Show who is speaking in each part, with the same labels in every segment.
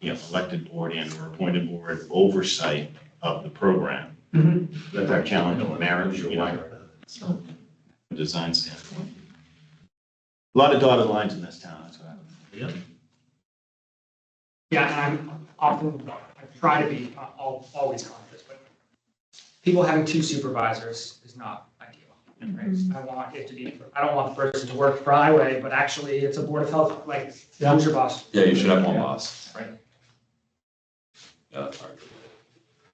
Speaker 1: you know, elected board and or appointed board oversight of the program.
Speaker 2: Mhm.
Speaker 1: That's our challenge, marriage, you know, from a design standpoint. A Lot of dotted lines in this town, that's what I would.
Speaker 2: Yeah, and I'm often, I try to be uh, al- always conscious, but people having two supervisors is not ideal. right? I want it to be, I don't want the person to work for highway, but actually it's a board of health, like, who's your boss?
Speaker 3: Yeah, you should have one boss.
Speaker 2: Right.
Speaker 3: Yeah, that's hard.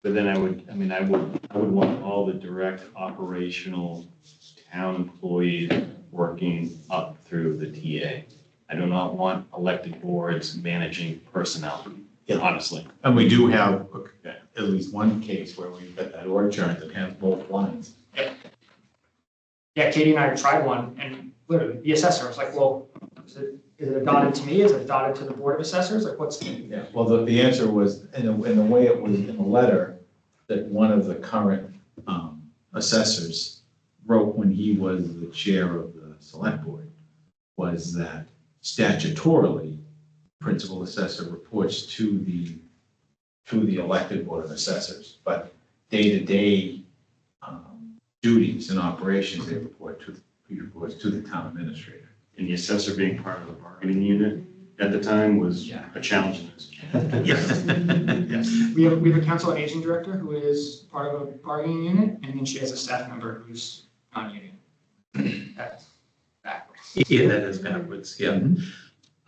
Speaker 1: But then I would, I mean, I would, I would want all the direct operational town employees working up through the TA. I do not want elected boards managing personnel, honestly.
Speaker 4: And we do have at least one case where we've got that org chart that has both lines.
Speaker 2: Yeah, Katie and I tried one, and literally, the assessor was like, well, is it, is it dotted to me, is it dotted to the board of assessors, like, what's?
Speaker 4: Yeah, well, the, the answer was, in the, in the way it was in the letter, that one of the current, um, assessors wrote when he was the chair of the select board, was that statutorily, principal assessor reports to the, to the elected board of assessors, but day-to-day, um, duties and operations, they report to, he reports to the town administrator.
Speaker 1: And the assessor being part of the bargaining unit at the time was
Speaker 4: Yeah.
Speaker 1: a challenge. in this.
Speaker 4: Yes, yes.
Speaker 2: We have, we have a council on aging director who is part of a bargaining unit, and then she has a staff member who's non-union. That's backwards.
Speaker 5: Yeah, that is backwards, yeah.
Speaker 4: Mhm.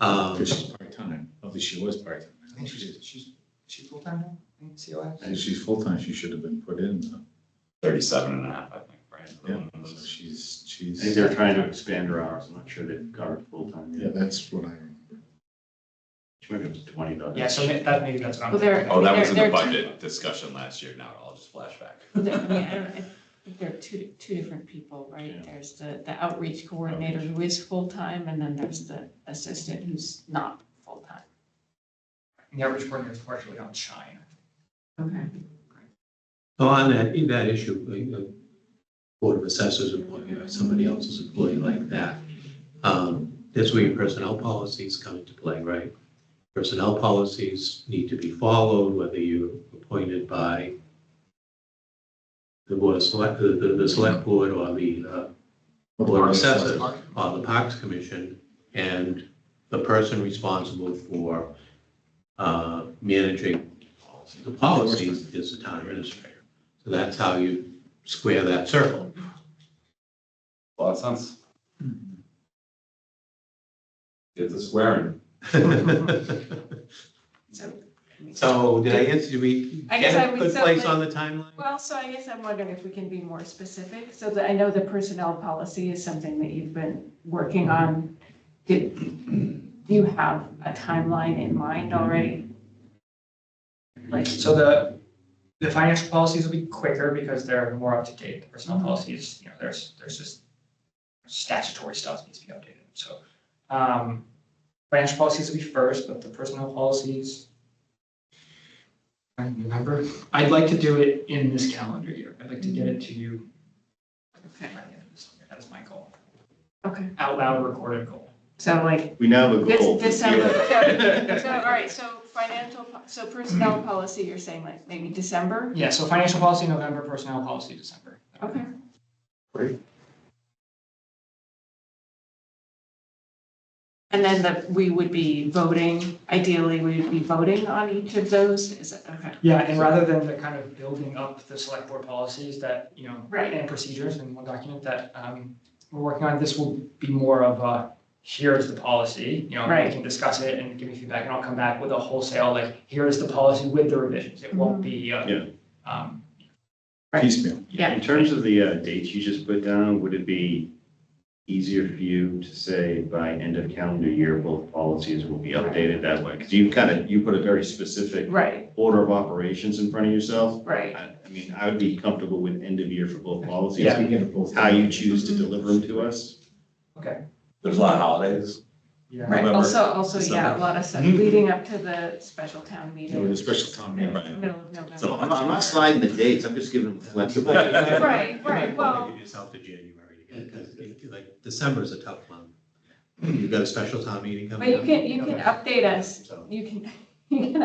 Speaker 5: Um,
Speaker 4: Because she's part-time, at least she was part-time.
Speaker 2: I think she's, she's, she's full-time now, I think, COS?
Speaker 4: And if she's full-time, she should have been put in, though.
Speaker 3: Thirty-seven and a half, I think, right?
Speaker 4: yeah, so she's,
Speaker 1: I
Speaker 4: she's.
Speaker 1: think they're trying to expand her hours. I'm not sure they've covered full time
Speaker 4: Yeah,
Speaker 1: yet.
Speaker 4: that's what I remember.
Speaker 1: Maybe it was twenty dollars.
Speaker 2: Yeah, so ma- that, maybe that's what I'm
Speaker 6: Well, there-
Speaker 2: thinking.
Speaker 3: Oh, that was in the
Speaker 6: They're- they're-
Speaker 3: budget discussion last year, now it all just flashback.
Speaker 6: There- I mean, I don't- I think there are two, two different people,
Speaker 1: Yeah.
Speaker 6: right? There's the, the outreach coordinator who is full-time, and then there's the assistant who's not full-time.
Speaker 2: The average coordinator is partially on China.
Speaker 6: Okay.
Speaker 5: well, on that, in that issue, like, the Board of Assessors employee, or somebody else's employee like that, um, that's where your personnel policies come into play, right? Personnel policies need to be followed, whether you're appointed by the Board of Select, the, the, the Select Board or the, uh, Board of Assessors on the Parks Commission, and the person responsible for uh, managing the policies is the town administrator. So that's how you square that circle.
Speaker 3: A lot of sense. It's a swearing.
Speaker 6: So,
Speaker 5: So did I answer, do we
Speaker 6: I guess I
Speaker 5: get a
Speaker 6: would
Speaker 5: good place on the
Speaker 6: certainly-
Speaker 5: timeline?
Speaker 6: well, so I guess I'm wondering if we can be more specific, so that I know the personnel policy is something that you've been working on. Did, do you have a timeline in mind already? Like,
Speaker 2: So the, the financial policies will be quicker because they're more up to date. The Personnel policies, you know, there's, there's just statutory stuff needs to be updated, so. um, Financial policies will be first, but the personnel policies. I don't remember, I'd like to do it in this calendar year. I'd like to get it to you by
Speaker 6: okay,
Speaker 2: the end of this year. That is my goal,
Speaker 6: okay,
Speaker 2: out loud recorded goal.
Speaker 6: so like,
Speaker 1: We now have a
Speaker 6: This-
Speaker 1: goal.
Speaker 6: December, so, so, all right, so financial, po- so personnel policy, you're saying like maybe December?
Speaker 2: Yeah, so financial policy November, personnel policy December.
Speaker 6: Okay.
Speaker 1: Great.
Speaker 6: And then that we would be voting, ideally, we would be voting on each of those, is it, okay?
Speaker 2: Yeah, and rather than the kind of building up the select board policies that, you know,
Speaker 6: Right.
Speaker 2: and procedures in one document that um we're working on, this will be more of a, here's the policy, you know, we
Speaker 6: Right.
Speaker 2: can discuss it and give me feedback, and I'll come back with a wholesale, like, here is the policy with the revisions, it
Speaker 6: Mm-hmm.
Speaker 2: won't be uh
Speaker 1: Yeah.
Speaker 2: um,
Speaker 6: Right.
Speaker 4: Piecemeal.
Speaker 6: Yeah.
Speaker 1: In terms of the uh, dates you just put down, would it be easier for you to say by end of calendar year, both policies will be updated that way? Because you kind of, you put a very specific
Speaker 6: Right,
Speaker 1: order of operations in front of yourself.
Speaker 6: right,
Speaker 1: I I mean, I would be comfortable with end of year for both policies.
Speaker 2: Yeah.
Speaker 4: We get it both.
Speaker 1: How you choose to deliver them to us.
Speaker 2: okay.
Speaker 3: There's a lot of holidays.
Speaker 2: Yeah.
Speaker 6: right,
Speaker 3: November,
Speaker 6: also, also, yeah, a
Speaker 3: December.
Speaker 6: lot of stuff
Speaker 1: Mm-hmm.
Speaker 6: leading up to the special town meeting.
Speaker 4: With a special town meeting.
Speaker 6: Middle of November.
Speaker 1: So I'm not, I'm not sliding the dates, I'm just giving them flexibility.
Speaker 6: Right, right, well-
Speaker 5: Give yourself to January, because like December is a tough month. You've got a special town meeting
Speaker 6: But
Speaker 5: coming
Speaker 6: you
Speaker 5: up.
Speaker 6: can, you can update us,
Speaker 5: So-
Speaker 6: you can, you can